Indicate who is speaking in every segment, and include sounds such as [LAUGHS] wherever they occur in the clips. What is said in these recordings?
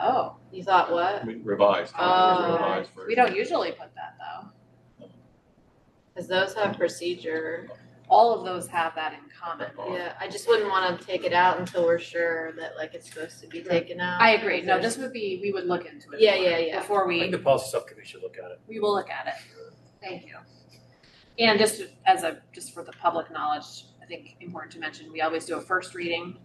Speaker 1: Oh, you thought what?
Speaker 2: We Revised.
Speaker 1: Oh.
Speaker 3: um,
Speaker 2: Revised
Speaker 1: We
Speaker 2: version.
Speaker 1: don't usually put that though. Cause those have procedure,
Speaker 3: All of those have that in common.
Speaker 1: yeah, I just wouldn't wanna take it out until we're sure that like it's supposed to be taken out.
Speaker 3: I agree. No,
Speaker 1: Because
Speaker 3: this would be, we would look into it.
Speaker 1: Yeah,
Speaker 3: more
Speaker 1: yeah, yeah.
Speaker 3: Before
Speaker 4: I think
Speaker 3: we,
Speaker 4: the policy subcommittee should look at it.
Speaker 3: we will look at it. Thank you. And just as a, just for the public knowledge, I think important to mention, we always do a first reading.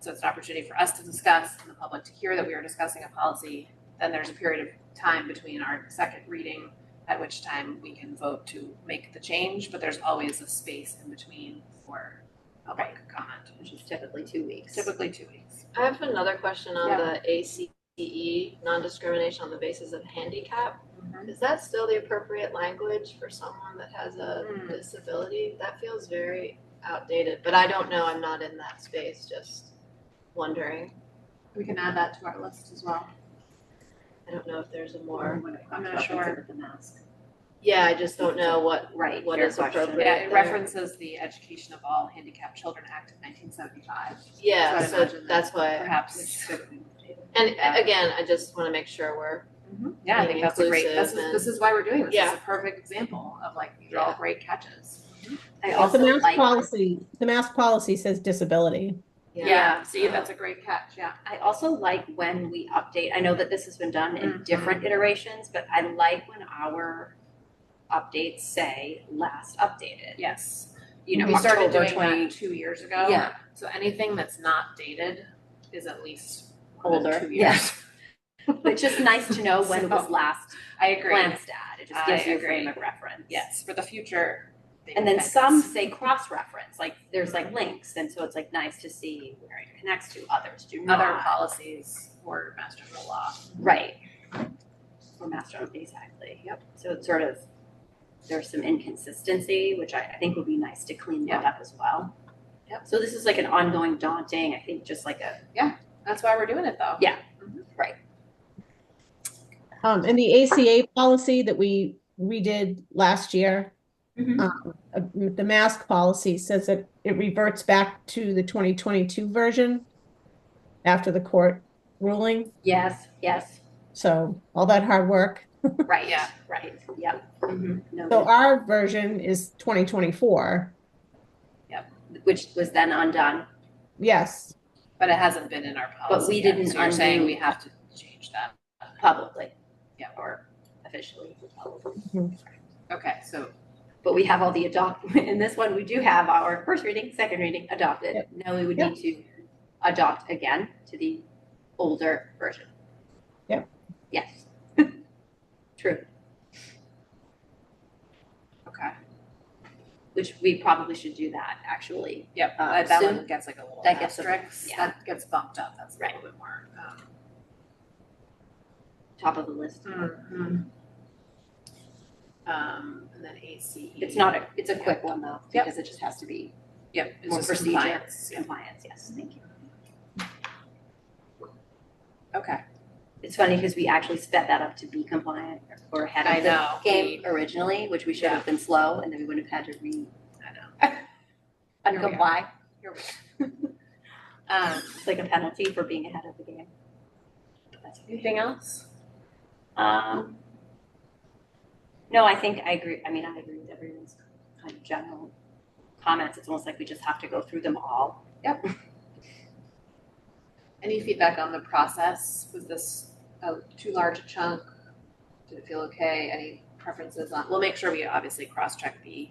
Speaker 3: So it's an opportunity for us to discuss and the public to hear that we are discussing a policy. Then there's a period of time between our second reading, at which time we can vote to make the change, but there's always a space in between for public comment,
Speaker 1: there's- Which is typically two weeks.
Speaker 3: typically two weeks.
Speaker 1: I have another question on
Speaker 3: Yeah.
Speaker 1: the ACE, non-discrimination on the basis of handicap.
Speaker 3: Mm-hmm.
Speaker 1: Is that still the appropriate language for someone that has a
Speaker 3: Hmm.
Speaker 1: disability? That feels very outdated, but I don't know, I'm not in that space, just wondering.
Speaker 3: We can add that to our list as well.
Speaker 1: I don't know if there's a more,
Speaker 3: I'm not sure.
Speaker 1: yeah, I just don't know what,
Speaker 5: Right,
Speaker 1: what
Speaker 5: fair
Speaker 1: is
Speaker 5: question.
Speaker 1: appropriate
Speaker 3: Yeah, it
Speaker 1: there.
Speaker 3: references the Education of All Handicapped Children Act of nineteen seventy-five,
Speaker 1: Yeah,
Speaker 3: So I'd
Speaker 1: so
Speaker 3: imagine
Speaker 1: that's why,
Speaker 3: perhaps.
Speaker 1: and a- again, I just wanna make sure we're,
Speaker 3: Yeah, I think that's a great, this is,
Speaker 1: Inclusive
Speaker 3: this is why we're doing this. This is
Speaker 1: Yeah.
Speaker 3: a perfect example of like, these are all
Speaker 1: Yeah.
Speaker 3: great catches.
Speaker 5: I
Speaker 6: Well,
Speaker 5: also
Speaker 6: The mask
Speaker 5: like,
Speaker 6: policy, the mask policy says disability.
Speaker 1: yeah.
Speaker 3: See, that's a great catch, yeah.
Speaker 5: I also like when we update, I know that this has been done in
Speaker 3: Mhm.
Speaker 5: different iterations, but I like when our updates say last updated.
Speaker 3: Yes.
Speaker 5: You know,
Speaker 3: We started
Speaker 5: October
Speaker 3: doing that Oh.
Speaker 5: 20
Speaker 3: two years ago.
Speaker 5: Yeah.
Speaker 3: So anything that's not dated is at least more than
Speaker 5: Older,
Speaker 3: two
Speaker 5: yeah.
Speaker 3: years.
Speaker 5: It's just nice to know when it was
Speaker 3: [LAUGHS] So-
Speaker 5: last
Speaker 3: [LAUGHS] I agree.
Speaker 5: glanced at. It just
Speaker 3: I
Speaker 5: gives you a
Speaker 3: agree.
Speaker 5: frame of reference.
Speaker 3: Yes, for the future. they
Speaker 5: And
Speaker 3: can
Speaker 5: then
Speaker 3: fix.
Speaker 5: some say cross-reference, like there's like links, and so it's like nice to see where it connects to others, do not.
Speaker 3: other policies or master of the law.
Speaker 5: Right. Or master, exactly, yep. So it's sort of, there's some inconsistency, which I, I think would be nice to clean that up as well.
Speaker 3: Yep.
Speaker 5: So this is like an ongoing daunting, I think, just like a,
Speaker 3: That's why we're doing it though.
Speaker 5: Yeah.
Speaker 6: Um, and the ACA policy that we redid last year,
Speaker 5: Mhm.
Speaker 6: um, uh, the mask policy says that it reverts back to the 2022 version after the court ruling.
Speaker 5: yes, yes,
Speaker 3: [LAUGHS]
Speaker 6: So all that hard work.
Speaker 5: right,
Speaker 3: Yeah.
Speaker 5: right, yep.
Speaker 3: Mhm.
Speaker 6: So
Speaker 5: No,
Speaker 6: our version is 2024.
Speaker 5: which was then undone,
Speaker 6: Yes.
Speaker 3: But it hasn't been in our policy.
Speaker 5: we
Speaker 3: yet,
Speaker 5: didn't
Speaker 3: So you're saying
Speaker 5: undo-
Speaker 3: we have to change that.
Speaker 5: publicly,
Speaker 3: Yeah.
Speaker 5: or officially, publicly.
Speaker 3: Okay, so
Speaker 5: But we have all the adopt, [LAUGHS] in this one, we do have our first reading, second reading, adopted.
Speaker 6: Yep.
Speaker 5: Now we would need to adopt again to the older version.
Speaker 6: Yep.
Speaker 5: Yes. [LAUGHS] True,
Speaker 3: okay.
Speaker 5: which we probably should do that, actually.
Speaker 3: Yep.
Speaker 5: Um,
Speaker 3: that- that
Speaker 5: soon-
Speaker 3: one gets like a little
Speaker 5: that gets a-
Speaker 3: asterisk.
Speaker 5: yeah.
Speaker 3: That gets bumped up. That's a little bit more. um,
Speaker 5: Top of the list. Mm-hmm.
Speaker 3: Um, and then ACE.
Speaker 5: It's not a, it's a quick one though,
Speaker 3: Yep.
Speaker 5: because it just has to be
Speaker 3: Yep, it's
Speaker 5: more
Speaker 3: just
Speaker 5: procedure.
Speaker 3: compliance. Yeah.
Speaker 5: compliance, yes, thank you.
Speaker 3: Okay,
Speaker 5: It's funny because we actually sped that up to be compliant or ahead
Speaker 3: I
Speaker 5: of the
Speaker 3: know.
Speaker 5: game originally, which we should have been slow and then we wouldn't have had to re,
Speaker 3: I know. [LAUGHS] Here we are.
Speaker 5: uncomply.
Speaker 3: Here we are. [LAUGHS] Um,
Speaker 5: It's like a penalty for being ahead of the game. That's okay.
Speaker 3: anything else?
Speaker 5: Um, no, I think I agree. I mean, I agree with everyone's kind of general comments. It's almost like we just have to go through them all.
Speaker 3: Any feedback on the process? Was this a too large a chunk? Did it feel okay? Any preferences on, we'll make sure we obviously cross-check the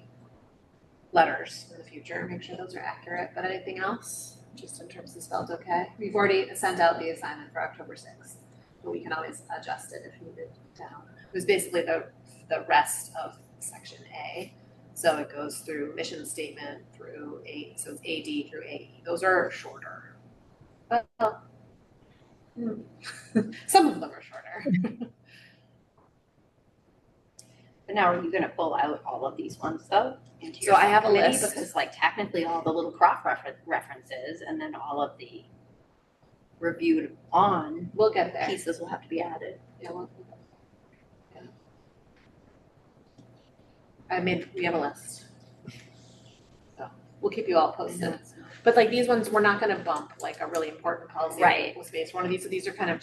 Speaker 3: letters in the future, make sure those are accurate, but anything else? Just in terms of spelled okay? We've already sent out the assignment for October sixth, but we can always adjust it if needed down. It was basically the, the rest of section A. So it goes through mission statement through A, so it's AD through AE. Those are shorter. Well, hmm. some of them are shorter.
Speaker 5: But now, are you going to pull out all of these ones though? into
Speaker 3: So
Speaker 5: your
Speaker 3: I have a
Speaker 5: subcommittee?
Speaker 3: list.
Speaker 5: Because like technically all the little crop refer- references and then all of the reviewed on
Speaker 3: We'll get there.
Speaker 5: pieces will have to be added.
Speaker 3: Yeah, we'll- yeah. I mean, we have a list. So we'll keep you all posted. But like these ones, we're not gonna bump like a really important policy.
Speaker 5: Right.
Speaker 3: Space, one of these, these are kind of